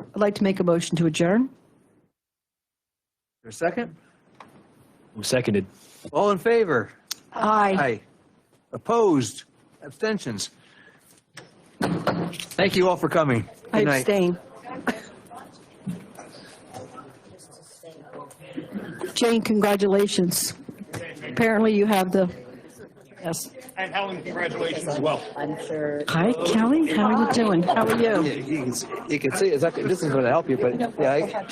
I'd like to make a motion to adjourn. There a second? Seconded. All in favor? Aye. Aye. Opposed? Abstentions? Thank you all for coming. I Good night. abstain. Jane, congratulations. Apparently you have the, yes. And Helen, congratulations as well. I'm sure. Hi, Kelly, how are you doing? How are you? You can see, you can see, it's not- this is going to help you, but yeah, I-